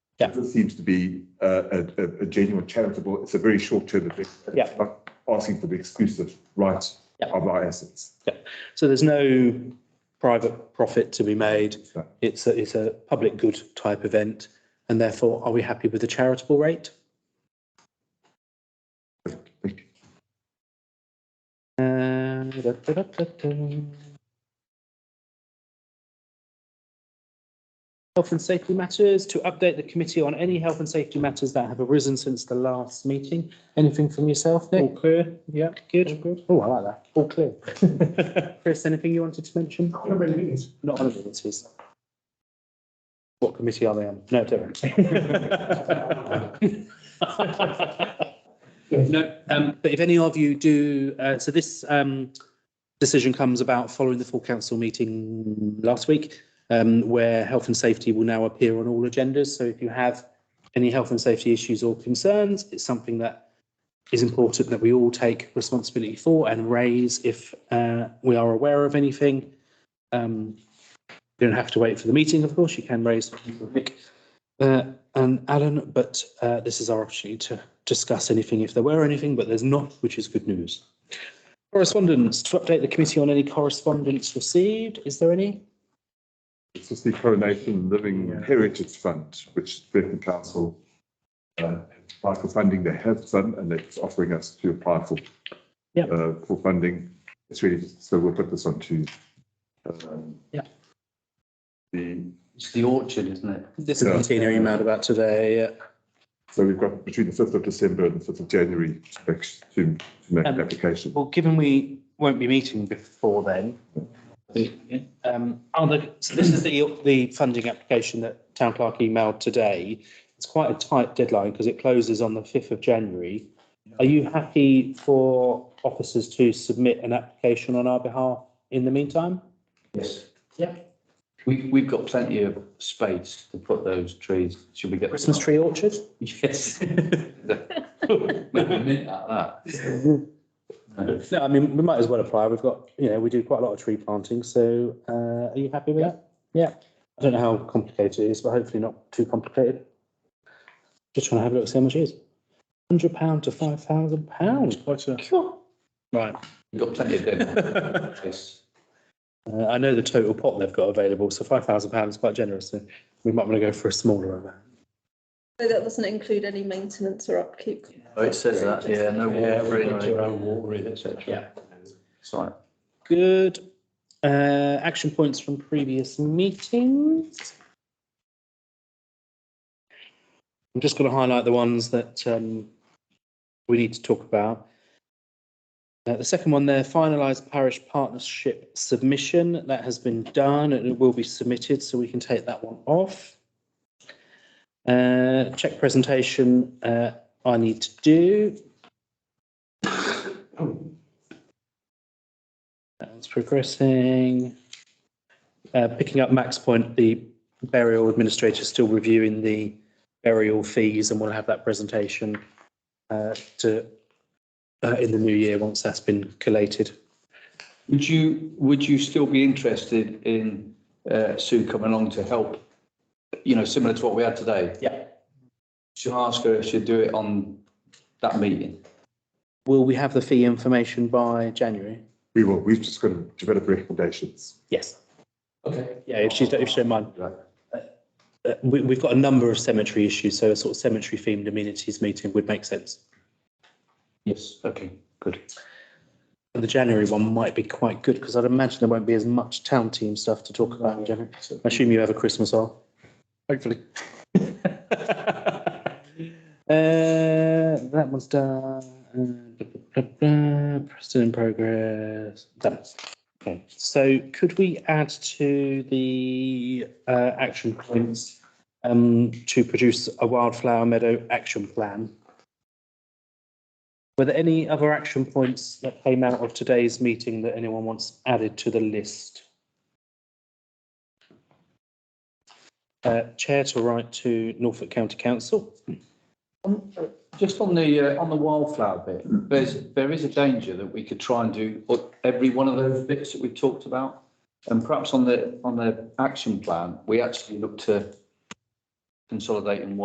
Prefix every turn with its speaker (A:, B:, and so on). A: Yeah.
B: This seems to be uh, a, a, a genuine charitable, it's a very short term event. It's
A: Yeah.
B: not Asking for the exclusive rights
A: Yeah.
B: of our assets.
A: So there's no private profit to be made.
B: No.
A: It's a, it's a public good type event. And therefore, are we happy with the charitable rate?
B: Thank you.
A: Uh, da, da, da, da, da. Health and safety matters, to update the committee on any health and safety matters that have arisen since the last meeting. Anything from yourself, Nick?
C: All clear, yeah.
A: Good. Oh, I like that. All clear. Chris, anything you wanted to mention? Not on abilities. What committee are they on? No, don't.
C: No, um,
A: But if any of you do, uh, so this um, decision comes about following the full council meeting last week, um, where health and safety will now appear on all agendas. So if you have any health and safety issues or concerns, it's something that is important that we all take responsibility for and raise if uh, we are aware of anything. Um, you don't have to wait for the meeting, of course. You can raise Nick uh, and Alan, but uh, this is our opportunity to discuss anything if there were anything, but there's not, which is good news. Correspondence to update the committee on any correspondence received. Is there any?
B: It's just the Coronation Living Heritage Fund, which Britain Council uh, applied for funding. They have some and it's offering us to apply for
A: Yeah.
B: uh, for funding. It's really, so we'll put this on to um,
A: Yeah.
B: the,
D: It's the orchard, isn't it?
A: This
B: is
A: is
B: Yeah.
A: Martina emailed about today.
B: so we've got between the fifth of December and the fifth of January to make- to to make an
A: Um,
B: application.
A: Well, given we won't be meeting before then, um, are the- so this is the, the funding application that town clerk emailed today. It's quite a tight deadline because it closes on the fifth of January. Are you happy for officers to submit an application on our behalf in the meantime?
D: Yes.
A: Yeah.
D: We, we've got plenty of space to put those trees. Should we get?
A: Christmas tree orchard?
D: Yes. Make a mint out of that. No.
A: No, I mean, we might as well apply. We've got, you know, we do quite a lot of tree planting, so uh, are you happy with that? Yeah. I don't know how complicated it is, but hopefully not too complicated. Just trying to have a look, see how much it is. Hundred pound to five thousand pound.
C: what's that?
A: Mm, Right.
D: We've got plenty of dead space.
A: Uh, I know the total pot they've got available, so five thousand pound is quite generous. So we might want to go for a smaller amount.
E: So that doesn't include any maintenance or upkeep.
D: Oh, it says that, yeah, no water,
C: water in, et cetera.
D: Yeah. Sorry.
A: Good. Uh, action points from previous meetings. I'm just going to highlight the ones that um, we need to talk about. Uh, the second one there, finalised parish partnership submission. That has been done and it will be submitted, so we can take that one off. Uh, check presentation uh, I need to do. That's progressing. Uh, picking up Max point, the burial administrator is still reviewing the burial fees and we'll have that presentation uh, to uh, in the new year once that's been collated.
D: Would you, would you still be interested in uh, Sue coming along to help? You know, similar to what we had today?
A: Yeah.
D: Should ask her if she'd do it on that meeting?
A: Will we have the fee information by January?
B: We will, we've just got to develop recommendations.
A: Yes.
D: Okay.
A: Yeah, if she, if she don't mind. Uh, we, we've got a number of cemetery issues, so a sort of cemetery themed amenities meeting would make sense.
D: Yes, okay, good.
A: The January one might be quite good because I'd imagine there won't be as much town team stuff to talk about in January. I assume you have a Christmas off.
C: Hopefully.
A: Uh, that one's done. Uh, blah, blah, blah, blah. Preston in progress. Done. Okay. So could we add to the uh, action points um, to produce a wildflower meadow action plan? Were there any other action points that came out of today's meeting that anyone wants added to the list? Uh, chair to write to Norfolk County Council.
D: On- uh, Just on the, uh, on the wildflower bit, there's, there is a danger that we could try and do o- every one of those bits that we've talked about. And perhaps on the, on the action plan, we actually look to consolidate in one.